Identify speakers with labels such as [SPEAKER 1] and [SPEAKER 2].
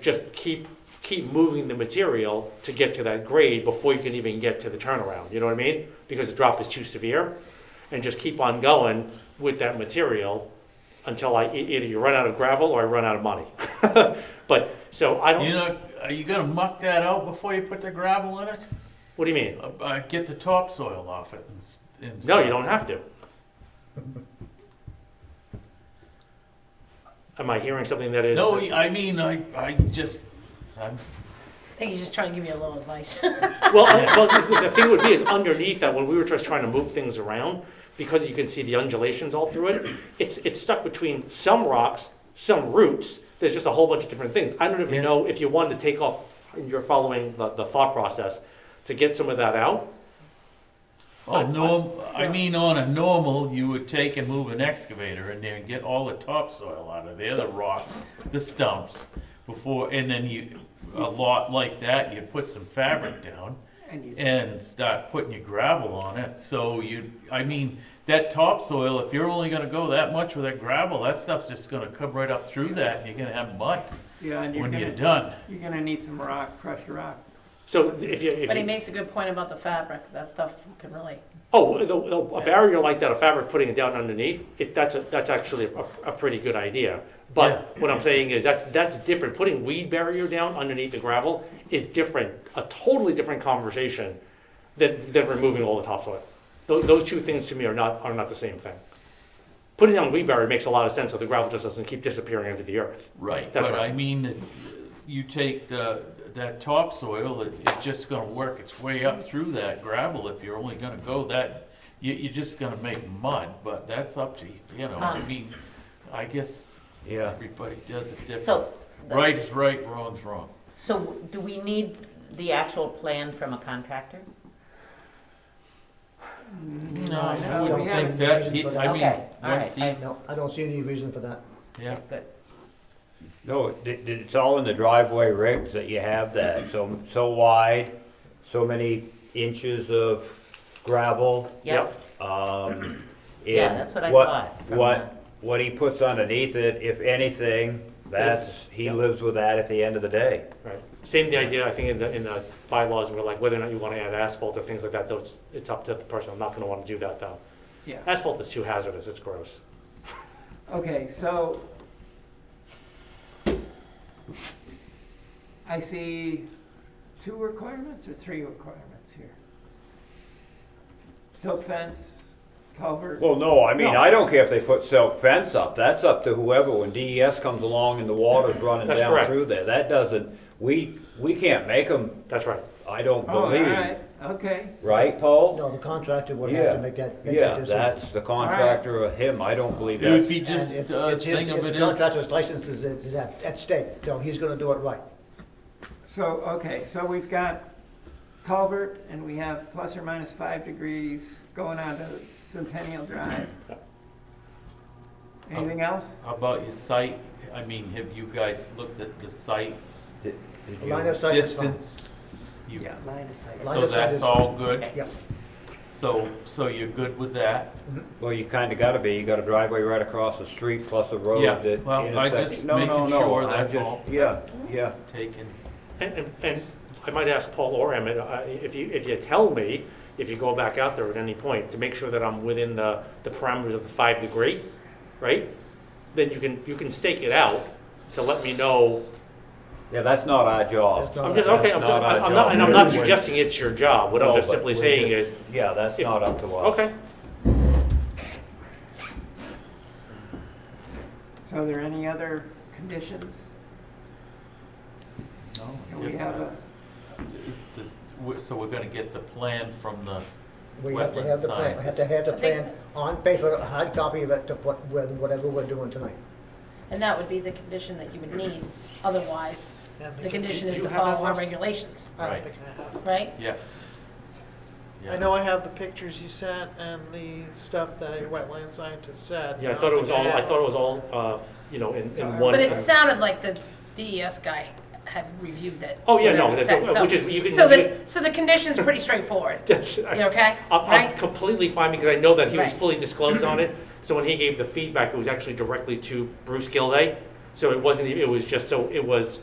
[SPEAKER 1] just keep, keep moving the material to get to that grade before you can even get to the turnaround, you know what I mean? Because the drop is too severe, and just keep on going with that material until I, e- either you run out of gravel or I run out of money. But, so I
[SPEAKER 2] You
[SPEAKER 1] don't,
[SPEAKER 2] know, are you gonna muck that out before you put the gravel in it?
[SPEAKER 1] what do you mean?
[SPEAKER 2] Uh, uh, get the topsoil off it and, s- and
[SPEAKER 1] No,
[SPEAKER 2] stuff.
[SPEAKER 1] you don't have to. Am I hearing something that is?
[SPEAKER 2] No, I mean, I, I just, I'm,
[SPEAKER 3] I think he's just trying to give you a little advice.
[SPEAKER 1] Well, I- well, the- the thing would be is underneath that, when we were just trying to move things around, because you can see the undulations all through it, it's, it's stuck between some rocks, some roots, there's just a whole bunch of different things. I don't even
[SPEAKER 2] Yeah.
[SPEAKER 1] know if you wanted to take off, you're following the, the thought process, to get some of that out. I- I-
[SPEAKER 2] on oh, norm, I mean, on a normal, you would take and move an excavator in there and get all the topsoil out of there, the rocks, the stumps, before, and then you, a lot like that, you put some fabric down and start putting your gravel on it, so you, I mean, that topsoil, if you're only gonna go that much with that gravel, that stuff's just gonna come right up through that, and you're gonna have mud
[SPEAKER 4] Yeah, and you're
[SPEAKER 2] when you're
[SPEAKER 4] gonna,
[SPEAKER 2] done.
[SPEAKER 4] you're gonna need some rock, crushed rock.
[SPEAKER 1] So if you, if
[SPEAKER 3] But he
[SPEAKER 1] you,
[SPEAKER 3] makes a good point about the fabric, that stuff can really,
[SPEAKER 1] oh, the- the- a barrier like that, a fabric putting it down underneath, it, that's, a- that's actually a, a pretty good idea. But what I'm saying is that's, that's different. Putting weed barrier down underneath the gravel is different, a totally different conversation than, than removing all the topsoil. Those, those two things to me are not, are not the same thing. Putting down weed barrier makes a lot of sense, so the gravel just doesn't keep disappearing under the earth.
[SPEAKER 2] Right,
[SPEAKER 1] That's
[SPEAKER 2] but
[SPEAKER 1] right.
[SPEAKER 2] I mean, you take the, that topsoil, it, it's just gonna work its way up through that gravel if you're only gonna go that, you, you're just gonna make mud, but that's up to, you you know, I
[SPEAKER 3] Ah.
[SPEAKER 2] mean, I guess everybody does it different.
[SPEAKER 5] So,
[SPEAKER 2] Right is right, wrong's wrong.
[SPEAKER 5] so do we need the actual plan from a contractor?
[SPEAKER 2] No,
[SPEAKER 4] I
[SPEAKER 2] I
[SPEAKER 4] don't
[SPEAKER 2] wouldn't
[SPEAKER 4] think
[SPEAKER 2] think
[SPEAKER 6] we
[SPEAKER 2] that,
[SPEAKER 6] have
[SPEAKER 2] he-
[SPEAKER 6] any
[SPEAKER 2] I mean,
[SPEAKER 5] Okay, all
[SPEAKER 2] once
[SPEAKER 5] right,
[SPEAKER 2] he,
[SPEAKER 6] No, I don't see any reason for that.
[SPEAKER 2] yeah,
[SPEAKER 5] Good.
[SPEAKER 7] No, it- it- it's all in the driveway rigs that you have that, so, so wide, so many inches of gravel.
[SPEAKER 5] Yep,
[SPEAKER 7] Um,
[SPEAKER 5] Yeah,
[SPEAKER 7] and
[SPEAKER 5] that's what I thought from
[SPEAKER 7] What,
[SPEAKER 5] the-
[SPEAKER 7] what he puts underneath it, if anything, that's, he
[SPEAKER 1] Yep.
[SPEAKER 7] lives with that at the end of the day.
[SPEAKER 1] Right. Same the idea, I think, in the, in the bylaws, we're like, whether or not you want to add asphalt or things like that, those, it's up to the person. I'm not going to want to do that, though.
[SPEAKER 4] Yeah,
[SPEAKER 1] Asphalt is too hazardous, it's gross.
[SPEAKER 4] okay, so. I see two requirements or three requirements here. Silk fence, culvert,
[SPEAKER 7] Well, no, I mean,
[SPEAKER 1] No.
[SPEAKER 7] I don't care if they put silk fence up, that's up to whoever, when DES comes along and the water's running
[SPEAKER 1] That's
[SPEAKER 7] down
[SPEAKER 1] correct.
[SPEAKER 7] through there, that doesn't, we, we can't make them,
[SPEAKER 1] That's right.
[SPEAKER 7] I don't
[SPEAKER 4] oh, all
[SPEAKER 7] believe,
[SPEAKER 4] right, okay,
[SPEAKER 7] right, Paul?
[SPEAKER 6] No, the contractor would have
[SPEAKER 7] Yeah.
[SPEAKER 6] to make that, make that
[SPEAKER 7] Yeah,
[SPEAKER 6] decision.
[SPEAKER 7] that's the contractor or him, I don't believe
[SPEAKER 2] it would
[SPEAKER 7] that.
[SPEAKER 2] be
[SPEAKER 6] And
[SPEAKER 2] just,
[SPEAKER 6] it's-
[SPEAKER 2] uh,
[SPEAKER 6] it's his-
[SPEAKER 2] thing of
[SPEAKER 6] It's
[SPEAKER 2] it
[SPEAKER 6] the
[SPEAKER 2] is,
[SPEAKER 6] contractor's license is, is at, at stake, so he's gonna do it right.
[SPEAKER 4] so, okay, so we've got culvert and we have plus or minus five degrees going on to Centennial Drive. Anything else?
[SPEAKER 2] how about your site, I mean, have you guys looked at the site?
[SPEAKER 7] Did- did
[SPEAKER 6] The
[SPEAKER 7] you-
[SPEAKER 6] Line of sight is fine.
[SPEAKER 2] Distance? You-
[SPEAKER 4] Yeah.
[SPEAKER 6] Line of sight.
[SPEAKER 2] So that's all good?
[SPEAKER 6] Yeah,
[SPEAKER 2] So, so you're good with that?
[SPEAKER 7] Well, you kinda gotta be, you got a driveway right across the street plus a road
[SPEAKER 2] Yeah,
[SPEAKER 7] that
[SPEAKER 2] well, I
[SPEAKER 7] intersects.
[SPEAKER 2] just
[SPEAKER 7] No, no,
[SPEAKER 2] making
[SPEAKER 7] no,
[SPEAKER 2] sure
[SPEAKER 7] I
[SPEAKER 2] that's
[SPEAKER 7] just-
[SPEAKER 2] all.
[SPEAKER 7] Yeah, yeah.
[SPEAKER 2] Taken,
[SPEAKER 1] And, and, and I might ask Paul or Emmett, uh, if you, if you tell me, if you go back out there at any point, to make sure that I'm within the, the parameters of the five degree, right? Then you can, you can stake it out to let me know.
[SPEAKER 7] Yeah, that's not our
[SPEAKER 6] that's
[SPEAKER 7] job.
[SPEAKER 6] not
[SPEAKER 1] I'm
[SPEAKER 6] our
[SPEAKER 1] just,
[SPEAKER 6] job.
[SPEAKER 1] okay, I'm,
[SPEAKER 7] Not our
[SPEAKER 1] I'm not, and I'm
[SPEAKER 7] job.
[SPEAKER 1] not suggesting it's your job. What I'm
[SPEAKER 7] No,
[SPEAKER 1] just
[SPEAKER 7] but
[SPEAKER 1] simply
[SPEAKER 7] we're
[SPEAKER 1] saying is,
[SPEAKER 7] just- Yeah, that's
[SPEAKER 1] if-
[SPEAKER 7] not up to us.
[SPEAKER 1] okay,
[SPEAKER 4] So are there any other conditions?
[SPEAKER 2] no,
[SPEAKER 4] Can
[SPEAKER 2] I
[SPEAKER 4] we
[SPEAKER 2] guess
[SPEAKER 4] have a,
[SPEAKER 2] that's, if this- we- so we're gonna get the plan from the,
[SPEAKER 6] We have to
[SPEAKER 2] Wetland
[SPEAKER 6] have the plan, we have to have the
[SPEAKER 3] I think-
[SPEAKER 6] plan on paper, a hard copy of it to put with whatever we're doing tonight.
[SPEAKER 3] and that would be the condition that you would need, otherwise,
[SPEAKER 6] Yeah, but
[SPEAKER 3] the
[SPEAKER 6] you-
[SPEAKER 3] condition
[SPEAKER 6] you
[SPEAKER 3] is to
[SPEAKER 6] have
[SPEAKER 3] follow
[SPEAKER 6] that
[SPEAKER 3] our
[SPEAKER 6] one?
[SPEAKER 3] regulations,
[SPEAKER 6] I
[SPEAKER 2] Right.
[SPEAKER 6] don't think I have.
[SPEAKER 3] right?
[SPEAKER 2] yeah. Yeah.
[SPEAKER 8] I know I have the pictures you sent and the stuff that your wetland scientist said.
[SPEAKER 1] yeah, I thought it was all, I thought it was all, uh, you know, in, in one.
[SPEAKER 3] But it sounded like the DES guy had reviewed that.
[SPEAKER 1] Oh, yeah, no,
[SPEAKER 3] whatever it
[SPEAKER 1] that-
[SPEAKER 3] said, so-
[SPEAKER 1] which is- you can-
[SPEAKER 3] So
[SPEAKER 1] you
[SPEAKER 3] the, so the condition's pretty straightforward,
[SPEAKER 1] Yes, I-
[SPEAKER 3] you okay?
[SPEAKER 1] I'm, I'm
[SPEAKER 3] Right?
[SPEAKER 1] completely fine because I know that he was
[SPEAKER 3] Right.
[SPEAKER 1] fully disclosed on it. So when he gave the feedback, it was actually directly to Bruce Gilday. So it wasn't, even- it was just so, it was